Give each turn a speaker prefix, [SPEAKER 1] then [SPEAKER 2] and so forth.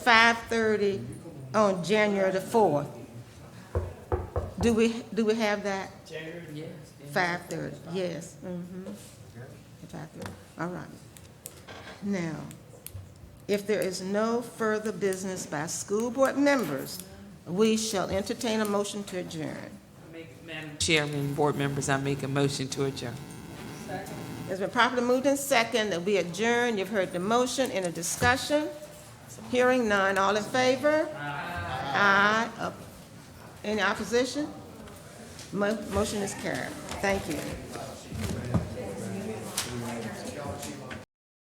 [SPEAKER 1] 5:30 on January the 4th. Do we, do we have that?
[SPEAKER 2] Yes.
[SPEAKER 1] 5:30, yes, mm-hmm. 5:30, all right. Now, if there is no further business by school board members, we shall entertain a motion to adjourn.
[SPEAKER 2] Madam Chairman, board members, I make a motion to adjourn.
[SPEAKER 1] It's been properly moved in second that we adjourn. You've heard the motion in a discussion. Hearing none. All in favor? Aye. Up- Any opposition? Mo- Motion is carried. Thank you.